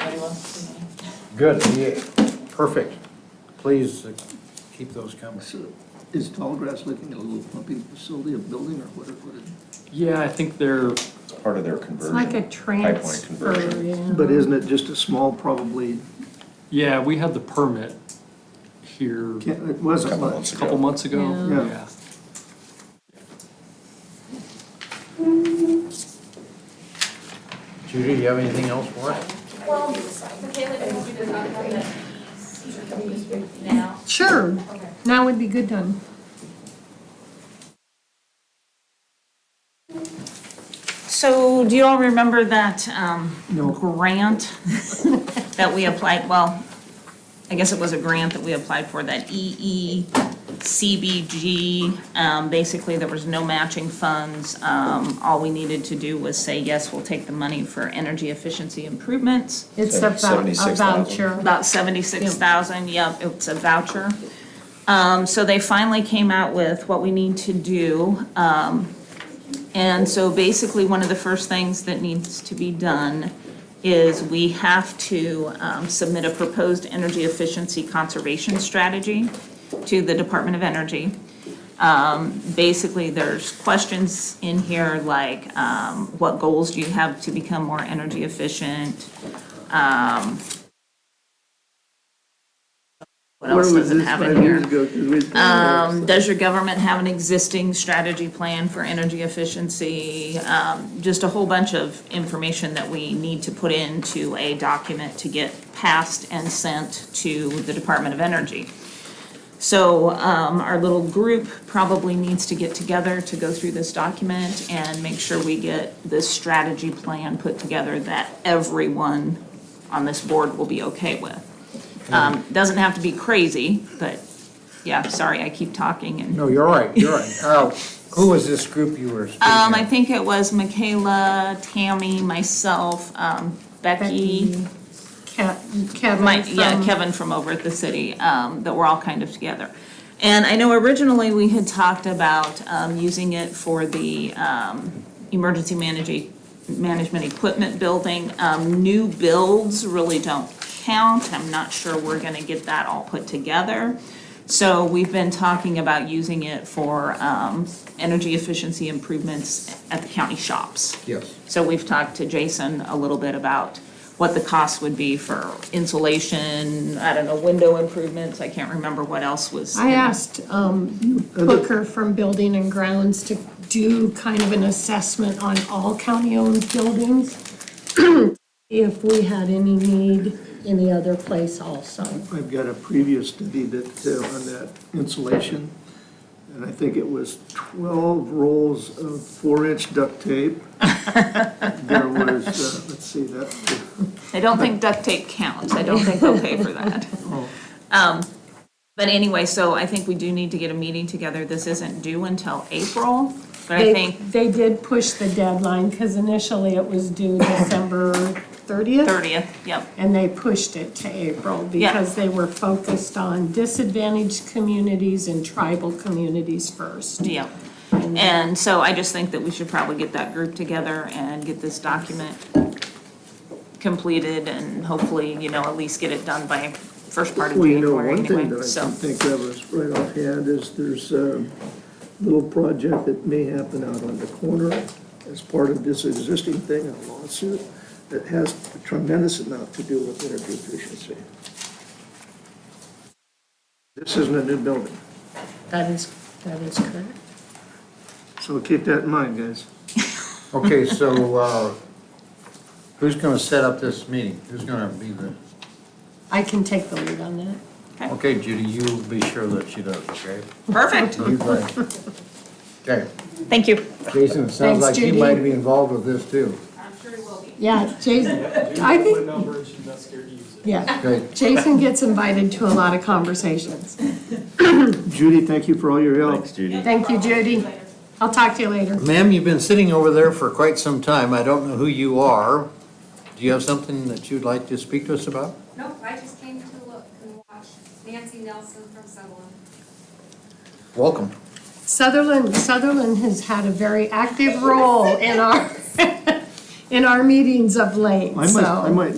to me. Good, yeah, perfect. Please uh, keep those coming. So is Tallgrass looking at a little pumping facility, a building or what? it- what it- Yeah, I think they're, It's part of their It's conversion. like a pipeline transfer, conversion. yeah. But isn't it just a small, probably, yeah, we had the permit here can't- a it A wasn't Couple much. months ago. couple months ago. Yeah. Yeah. Judy, you have anything else for us? Well, Michaela, did you just not have that now? Sure, Okay. now would be good done. So do you all remember that um, No. grant that we applied, well, I guess it was a grant that we applied for, that E EECBG. um, Basically, there was no matching funds. Um, All we needed to do was say, yes, we'll take the money for energy efficiency improvements. It's a vou- a 76,000. voucher. About seventy-six thousand, yep, it's a voucher. Um, so they finally came out with what we need to do. Um, and so basically, one of the first things that needs to be done is we have to, um, submit a proposed energy efficiency conservation strategy to the Department of Energy basically, there's questions in here like, um, what goals do you have to become more energy efficient? Um, What else does it have in here? Um, does your government have an existing strategy plan for energy efficiency? Um, just a whole bunch of information that we need to put into a document to get passed and sent to the Department of Energy. So, um, our little group probably needs to get together to go through this document and make sure we get this strategy plan put together that everyone on this board will be okay with. Um, doesn't have to be crazy, but, yeah, sorry, I keep talking and, um, No, you're right, you're right. Oh, who was this group you were speaking of? Um, I think it was Michaela, Tammy, myself, um, Becky, Becky, Ke- Kevin My, yeah, from- Kevin from over at the city, um, that we're all kind of together. And I know originally we had talked about, um, using it for the, um, emergency managing, management equipment building. Um, new builds really don't count. I'm not sure we're gonna get that all put together. So we've been talking about using it for, um, energy efficiency improvements at the county shops. Yes. So we've talked to Jason a little bit about what the cost would be for insulation, I don't know, window improvements, I can't remember what else was. I asked um, Booker from Building and Grounds to do kind of an assessment on all county-owned buildings, if we had any need any other place also. I've got a previous study that, uh, on that insulation, and I think it was 12 rolls of four-inch duct tape. There was, uh, let's see, that, I don't think duct tape counts, I don't think they'll pay for that. Oh. Um, But anyway, so I think we do need to get a meeting together, this isn't due until April, but I They, think they did push the deadline, because initially it was due December 30th, thirtieth, yep. and they pushed it to April Yeah. because they were focused on disadvantaged communities and tribal communities first. Yeah, and so I just think that we should probably get that group together and get this document completed and hopefully, you know, at least get it done by first part of well, you know, January one thing anyway, that I so. can think of is right offhand is there's a little project that may happen out on the corner as part of this existing thing, a lawsuit, that has a tremendous amount to do with energy efficiency. This isn't a new building. That is, that is correct. So keep that in mind, guys. Okay, so, uh, who's gonna set up this meeting? Who's gonna be the, I can take the lead on that. okay, Judy, you be sure that she does, okay? Perfect, You go ahead. Okay, thank you. Jason, it sounds Thanks, like you Judy. might be involved with this too. I'm sure it will be. Yeah, Jason, I My think, number and she's not scared to use it. yeah, Okay, Jason gets invited to a lot of conversations. Judy, thank you for all your help. Thanks, Judy. Thank you, Judy. I'll talk to you later. ma'am, you've been sitting over there for quite some time. I don't know who you are. Do you have something that you'd like to speak to us about? Nope, I just came to look and watch Nancy Nelson from Sutherland. Welcome. Sutherland, Sutherland has had a very active role in our, in our meetings of late, I might, so. I might